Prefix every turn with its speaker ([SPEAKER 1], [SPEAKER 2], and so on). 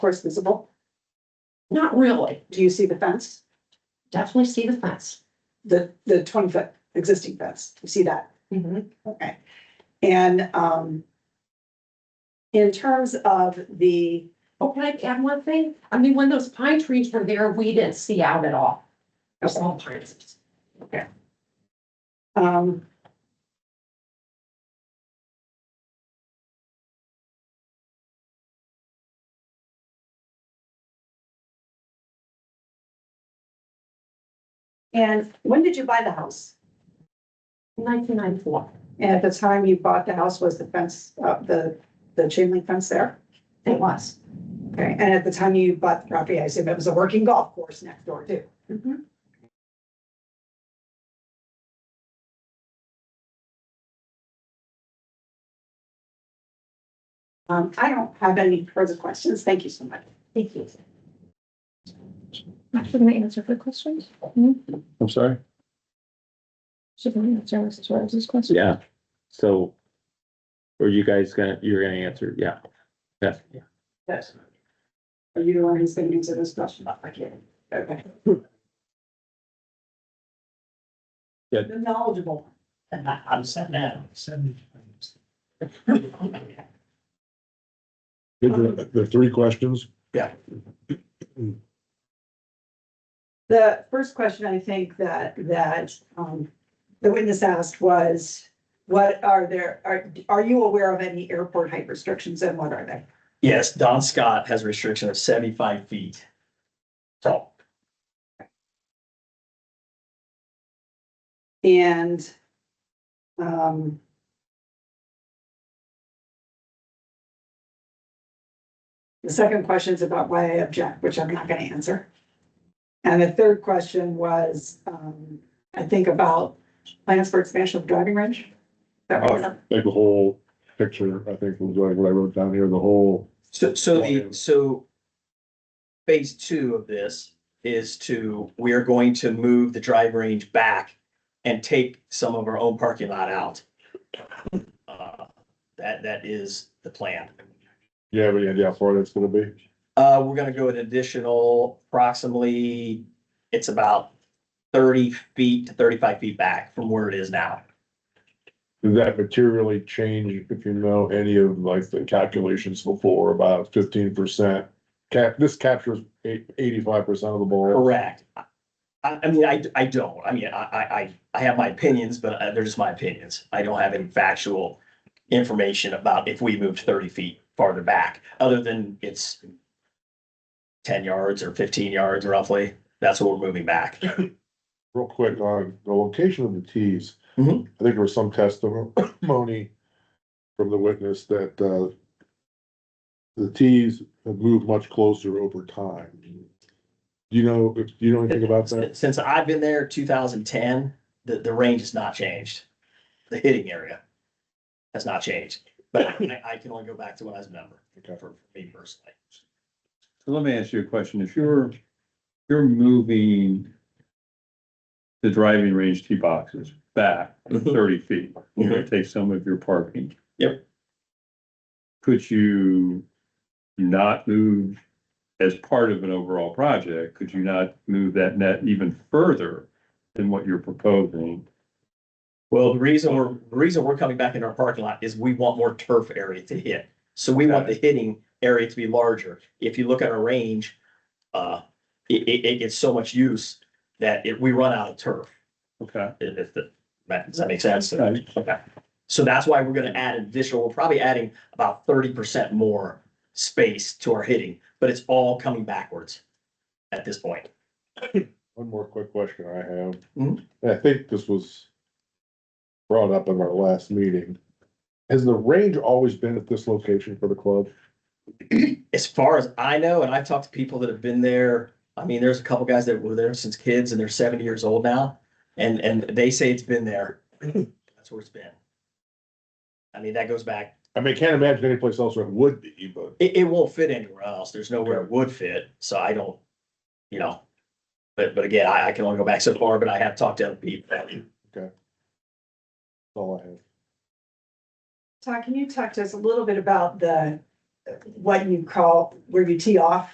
[SPEAKER 1] course visible? Not really. Do you see the fence?
[SPEAKER 2] Definitely see the fence.
[SPEAKER 1] The, the twenty foot existing fence? You see that?
[SPEAKER 2] Mhm.
[SPEAKER 1] Okay. And, um, in terms of the,
[SPEAKER 2] Oh, can I add one thing? I mean, when those pine trees were there, we didn't see out at all. There's all pines.
[SPEAKER 1] um, and when did you buy the house?
[SPEAKER 2] Nineteen ninety-four.
[SPEAKER 1] And at the time you bought the house, was the fence, uh, the, the chain link fence there?
[SPEAKER 2] It was.
[SPEAKER 1] Okay, and at the time you bought the property, I assume it was a working golf course next door too.
[SPEAKER 2] Mhm.
[SPEAKER 1] Um, I don't have any further questions. Thank you so much.
[SPEAKER 2] Thank you.
[SPEAKER 3] I shouldn't answer for questions.
[SPEAKER 4] I'm sorry?
[SPEAKER 3] Shouldn't answer Mrs. Rose's question.
[SPEAKER 4] Yeah, so. Were you guys gonna, you're gonna answer, yeah. Yeah,
[SPEAKER 1] Yes. Are you the one who's going to answer this question? I can. Okay.
[SPEAKER 4] Yeah.
[SPEAKER 1] The knowledgeable.
[SPEAKER 5] I'm sitting down.
[SPEAKER 6] The, the three questions,
[SPEAKER 1] The first question I think that, that, um, the witness asked was, what are there, are, are you aware of any airport height restrictions and what are they?
[SPEAKER 5] Yes, Don Scott has a restriction of seventy-five feet. So,
[SPEAKER 1] And, um, the second question is about why I object, which I'm not gonna answer. And the third question was, um, I think about plans for expansion of driving range. That was-
[SPEAKER 6] like the whole picture, I think was like what I wrote down here, the whole,
[SPEAKER 5] so, so the, so phase two of this is to, we are going to move the drive range back and take some of our own parking lot out. Uh, That, that is the plan.
[SPEAKER 6] yeah, but yeah, yeah, Florida it's gonna be.
[SPEAKER 5] Uh, we're gonna go an additional approximately, it's about thirty feet to thirty-five feet back from where it is now.
[SPEAKER 6] Did that materially change if you know any of like the calculations before about fifteen percent? Cap, this captures eighty-five percent of the ball.
[SPEAKER 5] Correct. I, I mean, I, I don't, I mean, I, I, I- I have my opinions, but uh, they're just my opinions. I don't have any factual information about if we moved thirty feet farther back, other than it's ten yards or fifteen yards roughly. That's what we're moving back.
[SPEAKER 6] Real quick on the location of the tees. I
[SPEAKER 5] Mhm.
[SPEAKER 6] think there was some testimony from the witness that, uh, the tees have moved much closer over time. Do you know, if you know anything about that?
[SPEAKER 5] Since I've been there, two thousand ten, the, the range has not changed. The hitting area has not changed, but I, I can only go back to when I was a member, for for me personally.
[SPEAKER 7] So let me ask you a question. If you're, you're moving the driving range tee boxes back
[SPEAKER 5] Mhm.
[SPEAKER 7] thirty feet, you're gonna take some of your parking.
[SPEAKER 5] Yep.
[SPEAKER 7] Could you not move as part of an overall project? Could you not move that net even further than what you're proposing?
[SPEAKER 5] Well, the reason we're, the reason we're coming back in our parking lot is we want more turf area to hit. So we want the hitting area to be larger. If you look at our range, uh, it, it, it gets so much use that it, we run out of turf.
[SPEAKER 7] Okay.
[SPEAKER 5] If, if the, that- does that make sense?
[SPEAKER 7] Right.
[SPEAKER 5] Okay. So that's why we're gonna add additional, we're probably adding about thirty percent more space to our hitting, but it's all coming backwards at this point.
[SPEAKER 6] One more quick question I have.
[SPEAKER 5] Mhm.
[SPEAKER 6] And I think this was brought up in our last meeting. Has the range always been at this location for the club?
[SPEAKER 5] as far as I know, and I've talked to people that have been there, I mean, there's a couple guys that were there since kids and they're seventy years old now. And, and they say it's been there. That's where it's been. I mean, that goes back,
[SPEAKER 6] I mean, I can't imagine any place else where it would be, but
[SPEAKER 5] it, it won't fit anywhere else. There's nowhere it would fit. So I don't, you know. But, but again, I, I can only go back so far, but I have talked to other people.
[SPEAKER 6] that's all I have.
[SPEAKER 1] Todd, can you talk to us a little bit about the, what you call, where you tee off